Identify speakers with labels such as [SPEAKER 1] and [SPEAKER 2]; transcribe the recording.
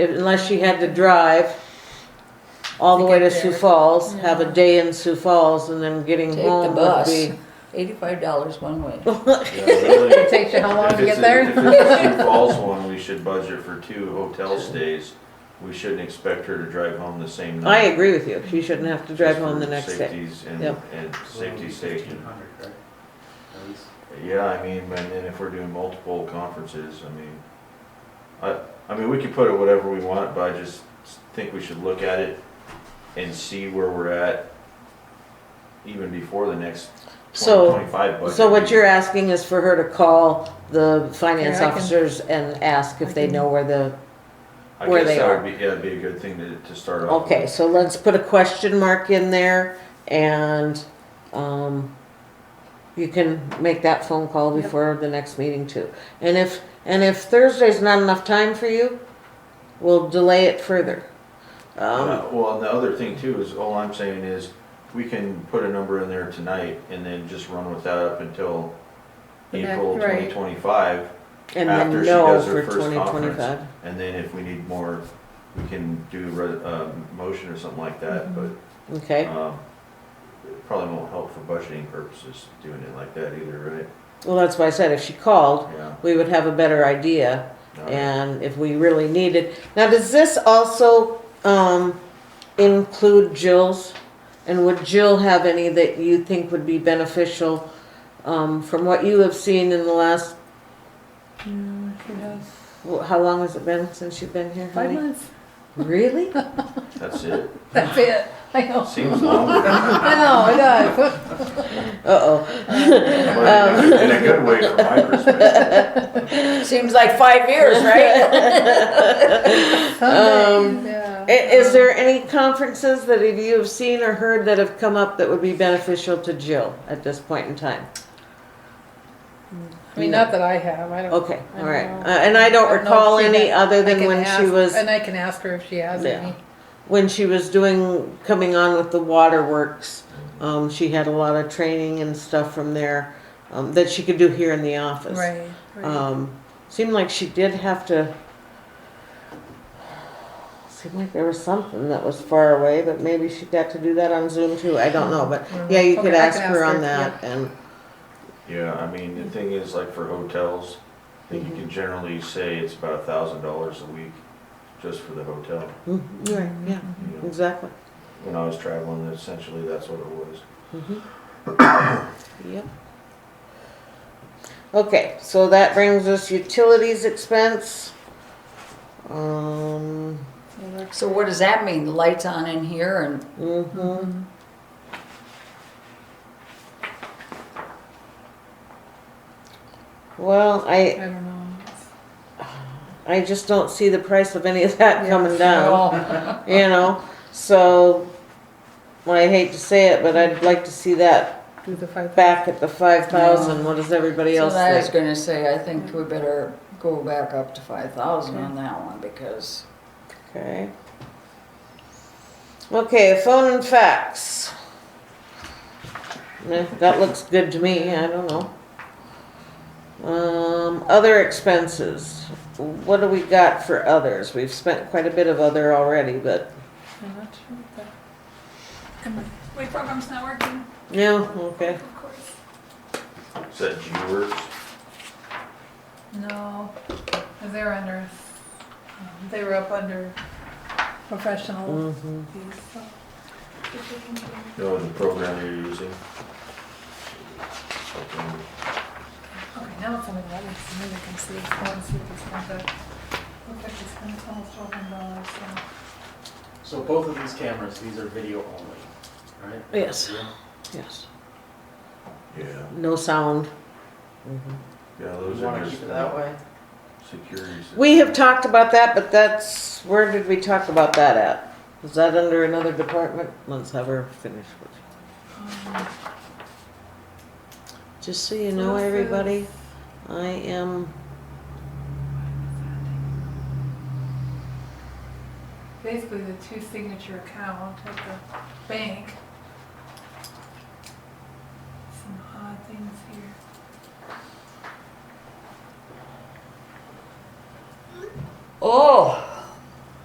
[SPEAKER 1] unless she had to drive all the
[SPEAKER 2] To
[SPEAKER 1] way to
[SPEAKER 2] get
[SPEAKER 1] Sioux
[SPEAKER 2] there.
[SPEAKER 1] Falls, have a day in Sioux Falls, and then getting
[SPEAKER 3] Take the
[SPEAKER 1] home would
[SPEAKER 3] bus.
[SPEAKER 1] be.
[SPEAKER 3] Eighty-five dollars one way.
[SPEAKER 4] Yeah, really.
[SPEAKER 2] It takes you how long
[SPEAKER 4] If
[SPEAKER 2] to get
[SPEAKER 4] it's a-
[SPEAKER 2] there?
[SPEAKER 4] If it's a Sioux Falls one, we should budget for two hotel stays. We shouldn't expect her to drive home the same
[SPEAKER 1] I
[SPEAKER 4] night.
[SPEAKER 1] agree with you. She shouldn't have to drive
[SPEAKER 4] just
[SPEAKER 1] home the
[SPEAKER 4] for
[SPEAKER 1] next day.
[SPEAKER 4] safety's And,
[SPEAKER 1] Yep.
[SPEAKER 4] and safety sake.
[SPEAKER 5] Fifteen hundred, right? At least.
[SPEAKER 4] Yeah, I mean, and then if we're doing multiple conferences, I mean, I, I mean, we could put it whatever we want, but I just think we should look at it and see where we're at even before the next twenty
[SPEAKER 1] So,
[SPEAKER 4] twenty-five budget.
[SPEAKER 1] so what
[SPEAKER 4] meeting.
[SPEAKER 1] you're asking is for her to call the finance
[SPEAKER 2] Here, I can-
[SPEAKER 1] officers and ask if
[SPEAKER 2] I
[SPEAKER 1] they
[SPEAKER 2] can-
[SPEAKER 1] know where the,
[SPEAKER 4] I
[SPEAKER 1] where
[SPEAKER 4] guess
[SPEAKER 1] they
[SPEAKER 4] that
[SPEAKER 1] are.
[SPEAKER 4] would be, yeah, it'd be a good thing to, to start off. with.
[SPEAKER 1] okay, so let's put a question mark in there and, um, you can make that phone call
[SPEAKER 2] Yep.
[SPEAKER 1] before the next meeting too. And if, and if Thursday's not enough time for you, we'll delay it further. Um,
[SPEAKER 4] Uh, Well, and the other thing too is, all I'm saying is, we can put a number in there tonight and then just run with that up until
[SPEAKER 2] The next-
[SPEAKER 4] April
[SPEAKER 2] right.
[SPEAKER 4] twenty twenty-five.
[SPEAKER 1] and
[SPEAKER 4] after
[SPEAKER 1] then
[SPEAKER 4] she
[SPEAKER 1] no
[SPEAKER 4] does her
[SPEAKER 1] for
[SPEAKER 4] first
[SPEAKER 1] twenty twenty-five.
[SPEAKER 4] conference. And then if we need more, we can do re- a motion or something like that, but,
[SPEAKER 1] Okay.
[SPEAKER 4] um, it probably won't help for budgeting purposes, doing it like that either,
[SPEAKER 1] Well, that's why I said if she called,
[SPEAKER 4] right? Yeah.
[SPEAKER 1] we would have a better idea.
[SPEAKER 4] All right.
[SPEAKER 1] And if we really needed, now does this also um, include Jill's? And would Jill have any that you think would be beneficial um, from what you have seen in the last? well, How long has it been since you've been here?
[SPEAKER 2] Five
[SPEAKER 1] honey?
[SPEAKER 2] months,
[SPEAKER 1] Really?
[SPEAKER 4] That's it.
[SPEAKER 2] that's it, I know,
[SPEAKER 4] Seems longer,
[SPEAKER 2] I know, it does.
[SPEAKER 1] Uh oh.
[SPEAKER 4] but in a- in a good way from my perspective.
[SPEAKER 3] Seems like five years, right?
[SPEAKER 1] Um,
[SPEAKER 2] Some days, yeah.
[SPEAKER 1] Is there any conferences that either you have seen or heard that have come up that would be beneficial to Jill at this point in time?
[SPEAKER 2] I mean, not that I have, I don't.
[SPEAKER 1] Okay,
[SPEAKER 2] I
[SPEAKER 1] all right. Uh,
[SPEAKER 2] don't know.
[SPEAKER 1] and I
[SPEAKER 2] I
[SPEAKER 1] don't
[SPEAKER 2] don't know
[SPEAKER 1] recall
[SPEAKER 2] if she
[SPEAKER 1] any
[SPEAKER 2] had-
[SPEAKER 1] other
[SPEAKER 2] I
[SPEAKER 1] than
[SPEAKER 2] can
[SPEAKER 1] when she
[SPEAKER 2] ask-
[SPEAKER 1] was,
[SPEAKER 2] And I can ask her if she has
[SPEAKER 1] Yeah.
[SPEAKER 2] any.
[SPEAKER 1] when she was doing, coming on with the waterworks. Um, she had a lot of training and stuff from there, um, that she could do here in the office.
[SPEAKER 2] Right, right.
[SPEAKER 1] Um, seemed like she did have to, seemed like there was something that was far away, but maybe she got to do that on Zoom too. I don't know, but yeah, you could
[SPEAKER 2] Okay, I
[SPEAKER 1] ask
[SPEAKER 2] can
[SPEAKER 1] her
[SPEAKER 2] ask
[SPEAKER 1] on
[SPEAKER 2] her,
[SPEAKER 1] that and,
[SPEAKER 4] Yeah, I mean, the thing is, like for hotels, I think you can generally say it's about a thousand dollars a week just for the hotel.
[SPEAKER 1] Mm, right, yeah,
[SPEAKER 4] you know.
[SPEAKER 1] exactly.
[SPEAKER 4] When I was traveling, essentially, that's what it was.
[SPEAKER 1] Mhm. Mm-hmm. Yep. Okay, so that brings us utilities expense. Um,
[SPEAKER 3] So what does that mean? The lights on in here and
[SPEAKER 1] mhm. Well,
[SPEAKER 2] I
[SPEAKER 1] I,
[SPEAKER 2] don't know.
[SPEAKER 1] I just don't see the price of any of that
[SPEAKER 2] Yeah.
[SPEAKER 1] coming down, you know, so. well, I hate to say it, but I'd like to see that
[SPEAKER 2] Do the five.
[SPEAKER 1] back at the five thousand, what does everybody
[SPEAKER 3] So
[SPEAKER 1] else
[SPEAKER 3] I was
[SPEAKER 1] think?
[SPEAKER 3] gonna say, I think we better go back up to five thousand on that one because
[SPEAKER 1] Okay. Okay, phone and fax. Eh, That looks good to me, I don't know. Um, other expenses, what do we got for others? We've spent quite a bit of other already, but,
[SPEAKER 2] I'm not sure if that-
[SPEAKER 6] My program's not working,
[SPEAKER 1] yeah, okay.
[SPEAKER 6] of course.
[SPEAKER 4] Is that G-Works?
[SPEAKER 2] No, 'cause they're under, um, they were up under professional
[SPEAKER 1] Mhm.
[SPEAKER 2] fees, so.
[SPEAKER 6] If we can do-
[SPEAKER 4] No, the program you're using? Okay.
[SPEAKER 2] Okay, now it's only eleven, so maybe I can see, I wanna see if this comes up. Looks like it's gonna almost twelve hundred dollars, so.
[SPEAKER 5] So both of these cameras, these are video only, right?
[SPEAKER 1] Yes.
[SPEAKER 5] Yeah.
[SPEAKER 1] Yes,
[SPEAKER 4] Yeah,
[SPEAKER 1] no sound. Mhm.
[SPEAKER 4] yeah,
[SPEAKER 5] You
[SPEAKER 4] those are.
[SPEAKER 5] wanna
[SPEAKER 4] just,
[SPEAKER 5] keep it
[SPEAKER 4] uh,
[SPEAKER 5] that way?
[SPEAKER 4] Securities.
[SPEAKER 1] We have talked about that, but that's, where did we talk about that at? Is that under another department? Let's have her finish. what
[SPEAKER 2] um,
[SPEAKER 1] she- Just so you know,
[SPEAKER 2] this is-
[SPEAKER 1] everybody, I am,
[SPEAKER 2] Basically, the two signature account at the bank